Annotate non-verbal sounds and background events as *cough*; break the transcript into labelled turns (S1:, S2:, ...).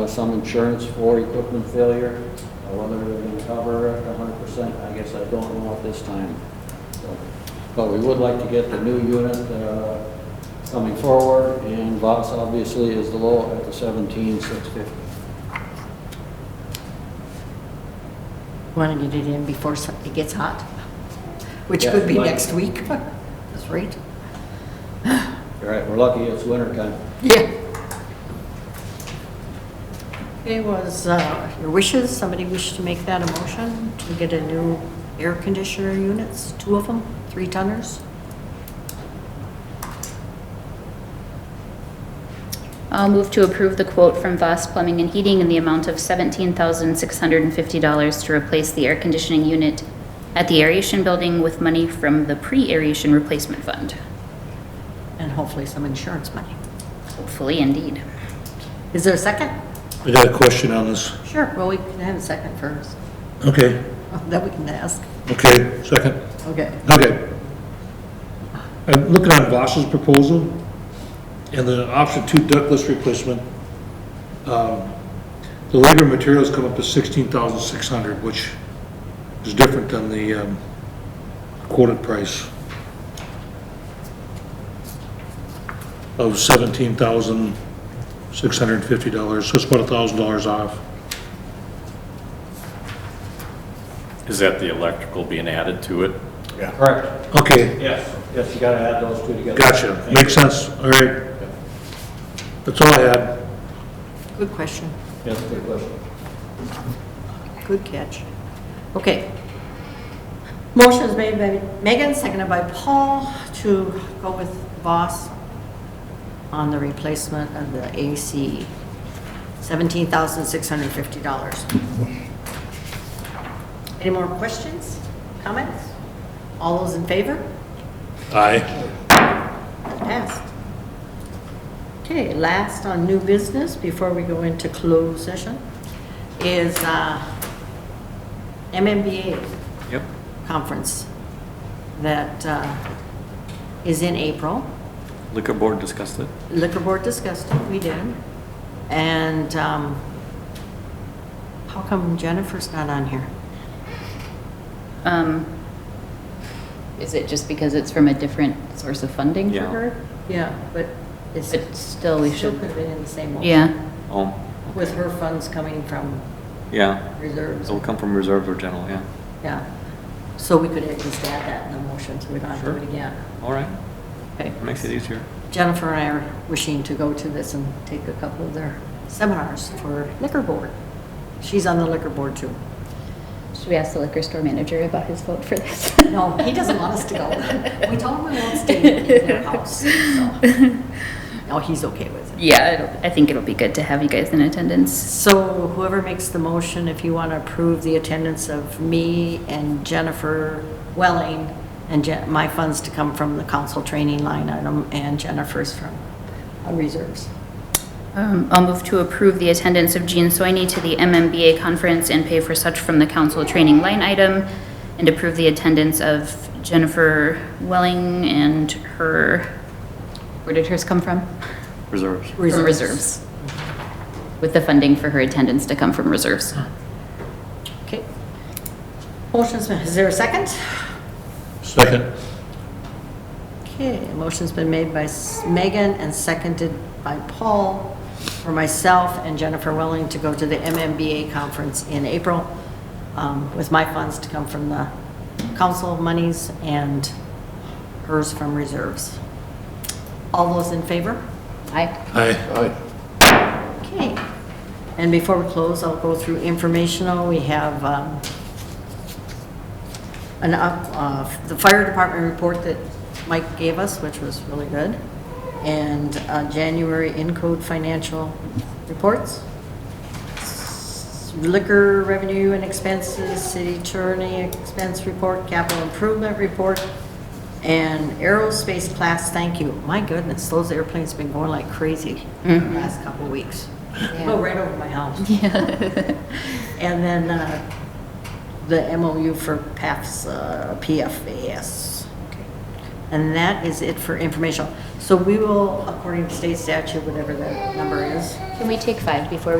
S1: Uh, some insurance for equipment failure, uh, whether they're going to cover it a hundred percent, I guess I don't know at this time. So, But we would like to get the new unit uh, coming forward, and Voss obviously is the low at the seventeen six fifty.
S2: Want to get it in before so- it gets hot, which
S1: Yeah,
S2: could be
S1: like-
S2: next week. *laughs* That's right.
S1: All right, we're lucky it's winter time.
S2: Yeah. Okay, was uh, your wishes, somebody wish to make that a motion to get a new air conditioner units, two of them, three tonners?
S3: I'll move to approve the quote from Voss Plumbing and Heating in the amount of $17,650 to replace the air conditioning unit at the aeration building with money from the pre-aeration replacement fund.
S2: And hopefully some insurance money.
S3: Hopefully, indeed.
S2: Is there a second?
S4: I got a question on this.
S2: Sure, well, we can have a second first, *laughs*
S4: Okay,
S2: then we can ask.
S4: okay, second,
S2: Okay.
S4: okay. I'm looking at Voss's proposal and the option two ductless replacement. Um, The labor and materials come up to sixteen thousand six hundred, which is different than the um, quoted price of seventeen thousand six hundred and fifty dollars, so it's about a thousand dollars off.
S5: Is that the electrical being added to it?
S1: Correct.
S4: Okay,
S1: Yes. Yes, you gotta add those two together.
S4: Gotcha, makes sense, all right. That's all I had.
S2: Good question.
S1: Yes, good question.
S2: Good catch. Okay. Motion is made by Megan, seconded by Paul to go with Voss on the replacement of the AC, $17,650. Any more questions, comments? All those in favor?
S4: Aye.
S2: Passed. Okay, last on new business, before we go into closed session, is uh, MMBA
S5: Yep.
S2: conference that uh, is in April.
S5: Liquor board discussed it?
S2: Liquor board discussed it, we did. And um, how come Jennifer's not on here?
S3: Um, Is it just because it's from a different source of funding for
S5: Yeah.
S3: her?
S2: Yeah, but it's,
S3: But still, we
S2: still could
S3: should,
S2: have been in the same one.
S3: yeah,
S5: Oh,
S2: With her funds coming from
S5: yeah.
S2: reserves,
S5: It'll come from reserve or general, yeah.
S2: yeah. So we could at least add that in the motion, so we don't have to do it again.
S5: All right,
S2: Okay.
S5: makes it easier.
S2: Jennifer and I are wishing to go to this and take a couple of their seminars for liquor board. She's on the liquor board too.
S3: should we ask the liquor store manager about his vote for this?
S2: No, he doesn't want us to *laughs*
S3: *laughs*
S2: go. We told him we won't stay in their house, so. *laughs* No, he's okay with it.
S3: Yeah, it'll- I think it'll be good to have you guys in attendance.
S2: So whoever makes the motion, if you want to approve the attendance of me and Jennifer Welling and Jen, my funds to come from the council training line item and Jennifer's from uh, reserves.
S3: Um, I'll move to approve the attendance of Jean Soini to the MMBA conference and pay for such from the council training line item, and approve the attendance of Jennifer Welling and her, where did hers come from?
S5: Reserves.
S3: From reserves. With the funding for her attendance to come from reserves.
S2: Okay. Motion's been, is there a second?
S4: Second.
S2: Okay, a motion's been made by S- Megan and seconded by Paul for myself and Jennifer Welling to go to the MMBA conference in April um, with my funds to come from the council monies and hers from reserves. All those in favor?
S3: Aye.
S4: Aye.
S2: Okay. And before we close, I'll go through informational. We have um, an, up- uh, the fire department report that Mike gave us, which was really good, and uh, January in-code financial reports. Liquor revenue and expenses, city attorney expense report, capital improvement report, and aerospace class, thank you. My goodness, those airplanes been going like crazy the last couple of weeks. Go right over my house. *laughs* And then uh, the MOU for PAFs, uh, PFAS. And that is it for informational. So we will, according to state statute, whatever that number is,
S3: Can we take five before we